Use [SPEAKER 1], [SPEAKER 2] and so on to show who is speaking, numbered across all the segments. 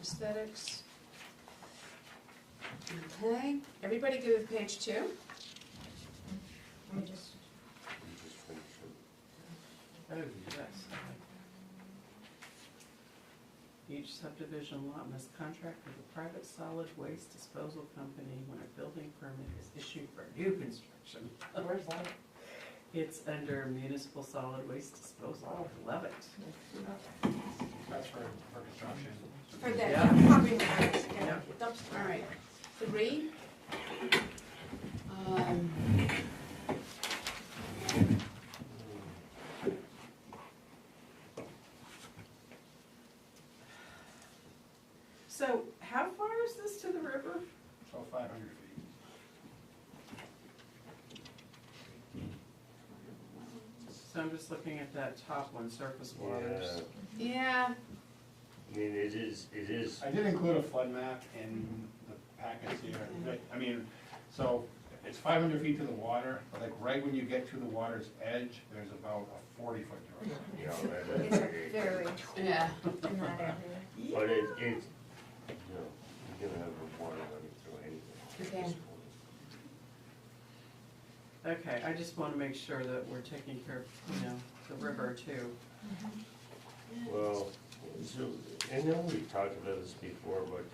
[SPEAKER 1] aesthetics. Okay, everybody good with page two? Let me just,
[SPEAKER 2] Oh, yes. Each subdivision lot must contract with a private solid waste disposal company when a building permit is issued for new construction.
[SPEAKER 3] Where's that?
[SPEAKER 2] It's under municipal solid waste disposal, I love it.
[SPEAKER 4] That's for, for construction.
[SPEAKER 3] For that,
[SPEAKER 2] Yeah.
[SPEAKER 3] pumping works, yeah,
[SPEAKER 2] Yeah.
[SPEAKER 3] dumpster.
[SPEAKER 1] all right, three. Um,
[SPEAKER 2] So how far is this to the river?
[SPEAKER 4] So five hundred feet.
[SPEAKER 2] So I'm just looking at that top one, surface waters.
[SPEAKER 5] Yeah,
[SPEAKER 1] Yeah,
[SPEAKER 5] I mean, it is, it is,
[SPEAKER 4] I did include a flood map in the packets here, but, I mean, so it's five hundred feet to the water, but like right when you get to the water's edge, there's about a forty foot drop.
[SPEAKER 5] you know,
[SPEAKER 3] It's
[SPEAKER 5] but
[SPEAKER 3] a
[SPEAKER 5] it-
[SPEAKER 3] very,
[SPEAKER 1] yeah,
[SPEAKER 3] in that area.
[SPEAKER 5] but it, it's, you know, you're gonna have a water running through anything. at this
[SPEAKER 1] Okay.
[SPEAKER 5] point.
[SPEAKER 2] Okay, I just wanna make sure that we're taking care of, you know, the river too.
[SPEAKER 5] Well, so, I know we talked about this before, but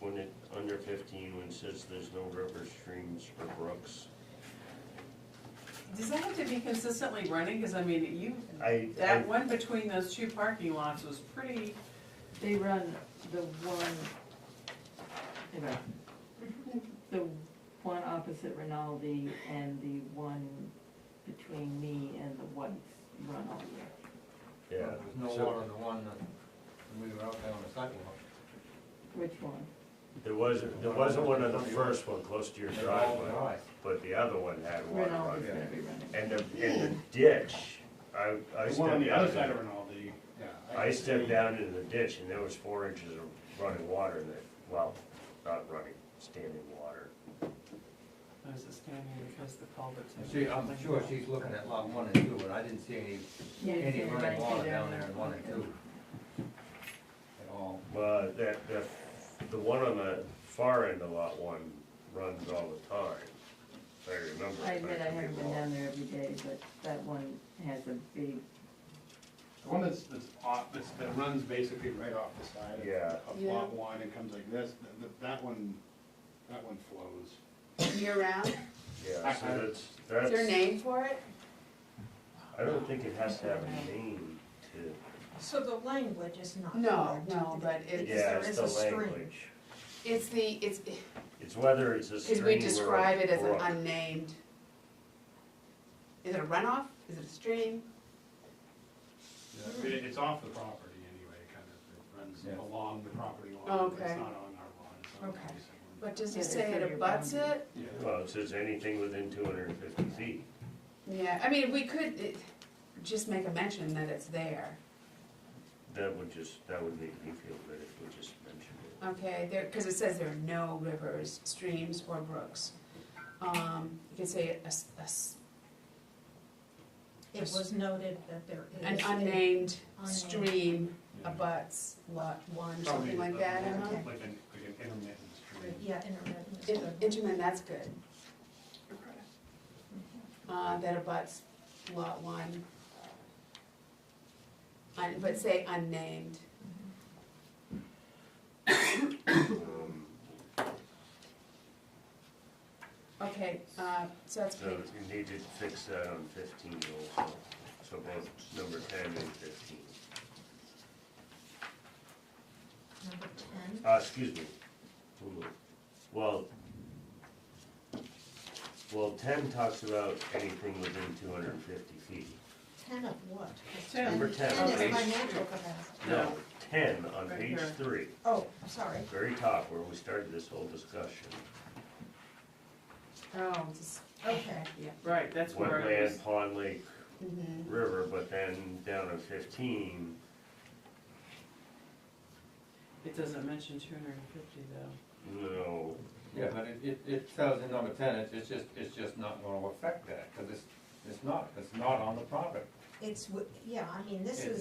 [SPEAKER 5] when it, under fifteen, when it says there's no river streams or brooks,
[SPEAKER 2] Does that have to be consistently running? Cause I mean, you,
[SPEAKER 5] I, I,
[SPEAKER 2] that one between those two parking lots was pretty,
[SPEAKER 6] They run the one, you know, the one opposite Rinaldi and the one between me and the Whites run all year.
[SPEAKER 5] yeah.
[SPEAKER 7] There's no
[SPEAKER 5] so
[SPEAKER 7] water in the one that, when we were out there on the sidewalk.
[SPEAKER 6] Which one?
[SPEAKER 5] There wasn't, there wasn't one on the first one close to your
[SPEAKER 7] They're all
[SPEAKER 5] driveway,
[SPEAKER 7] dry.
[SPEAKER 5] but the other one had water running.
[SPEAKER 6] Rinaldi's gonna be running.
[SPEAKER 5] And the, and the ditch, I, I
[SPEAKER 4] The one on
[SPEAKER 5] stepped
[SPEAKER 4] the other
[SPEAKER 5] down,
[SPEAKER 4] side of
[SPEAKER 5] in-
[SPEAKER 4] Rinaldi, yeah.
[SPEAKER 5] I
[SPEAKER 4] can
[SPEAKER 5] stepped
[SPEAKER 4] see-
[SPEAKER 5] down into the ditch and there was four inches of running water in it, well, not running, standing water.
[SPEAKER 2] I was just gonna be because the culvert's.
[SPEAKER 7] And She, I'm sure she's looking at lot one and two, but I didn't see any,
[SPEAKER 6] Yeah, it's
[SPEAKER 7] any
[SPEAKER 6] gonna run
[SPEAKER 7] running water
[SPEAKER 6] through
[SPEAKER 7] down
[SPEAKER 6] there.
[SPEAKER 7] there in one and two. At all.
[SPEAKER 5] But that, that, the one on the far end of lot one runs all the time, if I remember.
[SPEAKER 6] I admit
[SPEAKER 5] could
[SPEAKER 6] I
[SPEAKER 5] be
[SPEAKER 6] haven't been
[SPEAKER 5] wrong.
[SPEAKER 6] down there every day, but that one has a big,
[SPEAKER 4] The one that's, that's off, that's, that runs basically right off the side
[SPEAKER 5] Yeah.
[SPEAKER 4] of, of
[SPEAKER 1] Yeah.
[SPEAKER 4] lot one and comes like this, th- th- that one, that one flows.
[SPEAKER 1] year round,
[SPEAKER 5] Yeah, so
[SPEAKER 4] I- I-
[SPEAKER 5] that's,
[SPEAKER 1] is there a
[SPEAKER 5] that's,
[SPEAKER 1] name for it?
[SPEAKER 5] I don't think it has to have a name to.
[SPEAKER 3] So the language is not.
[SPEAKER 1] No,
[SPEAKER 3] correct.
[SPEAKER 1] no, but it's-
[SPEAKER 5] Yeah,
[SPEAKER 3] There
[SPEAKER 5] it's
[SPEAKER 3] is
[SPEAKER 5] the
[SPEAKER 3] a stream.
[SPEAKER 5] language.
[SPEAKER 1] It's the, it's,
[SPEAKER 5] It's whether it's a stream
[SPEAKER 1] is
[SPEAKER 5] or.
[SPEAKER 1] we
[SPEAKER 5] a
[SPEAKER 1] describe it as an
[SPEAKER 5] brook.
[SPEAKER 1] unnamed. Is it a runoff, is it a stream?
[SPEAKER 4] It- It's off the property anyway, kind of, it
[SPEAKER 7] Yeah.
[SPEAKER 4] runs along the property line, but
[SPEAKER 1] Okay.
[SPEAKER 4] it's not on our lawn, it's on
[SPEAKER 3] Okay.
[SPEAKER 4] adjacent one.
[SPEAKER 1] But does
[SPEAKER 6] Yeah,
[SPEAKER 1] it
[SPEAKER 6] they
[SPEAKER 1] say
[SPEAKER 6] said
[SPEAKER 1] it
[SPEAKER 6] your
[SPEAKER 1] abuts
[SPEAKER 6] boundary.
[SPEAKER 1] it?
[SPEAKER 4] Yeah.
[SPEAKER 5] Well, it says anything within two hundred and fifty feet.
[SPEAKER 1] Yeah, I mean, we could eh, just make a mention that it's there,
[SPEAKER 5] That would just, that would make me feel good if we just mentioned it.
[SPEAKER 1] okay, there, cause it says there are no rivers, streams, or brooks. Um, you could say a s- a s-
[SPEAKER 3] It was noted that there is.
[SPEAKER 1] an
[SPEAKER 3] a-
[SPEAKER 1] unnamed
[SPEAKER 3] Unnamed.
[SPEAKER 1] stream
[SPEAKER 4] Yeah.
[SPEAKER 1] abuts lot one,
[SPEAKER 4] Probably
[SPEAKER 1] something like
[SPEAKER 4] a-
[SPEAKER 1] that, Emma?
[SPEAKER 3] Okay.
[SPEAKER 4] Like an, like an intermittent stream.
[SPEAKER 3] Yeah, intermittent. is
[SPEAKER 1] In-
[SPEAKER 3] good.
[SPEAKER 1] Intermittent, that's good. Uh, that abuts lot one. Un- But say unnamed.
[SPEAKER 5] Um,
[SPEAKER 1] Okay, uh, so that's
[SPEAKER 5] So
[SPEAKER 1] pretty,
[SPEAKER 5] you need to fix that on fifteen also, so both number ten and fifteen.
[SPEAKER 3] Number ten,
[SPEAKER 5] Uh, excuse me. Hold on. Well, well, ten talks about anything within two hundred and fifty feet.
[SPEAKER 3] ten of what?
[SPEAKER 2] Ten.
[SPEAKER 5] Number ten on
[SPEAKER 3] Ten is
[SPEAKER 5] page,
[SPEAKER 3] financial capacity.
[SPEAKER 5] no, ten on
[SPEAKER 2] Right
[SPEAKER 5] page
[SPEAKER 2] here.
[SPEAKER 5] three.
[SPEAKER 3] Oh, sorry.
[SPEAKER 5] very top where we started this whole discussion.
[SPEAKER 1] oh, just,
[SPEAKER 3] Okay,
[SPEAKER 1] yeah.
[SPEAKER 2] Right, that's where I was.
[SPEAKER 5] Wetland, pond, lake,
[SPEAKER 1] mhm.
[SPEAKER 5] river, but then down to fifteen,
[SPEAKER 2] It doesn't mention two hundred and fifty though.
[SPEAKER 5] no,
[SPEAKER 7] Yeah, but it, it, it tells in number ten, it's, it's just, it's just not gonna affect that, cause it's, it's not, it's not on the property.
[SPEAKER 3] it's, w- yeah, I mean, this
[SPEAKER 7] It-
[SPEAKER 3] is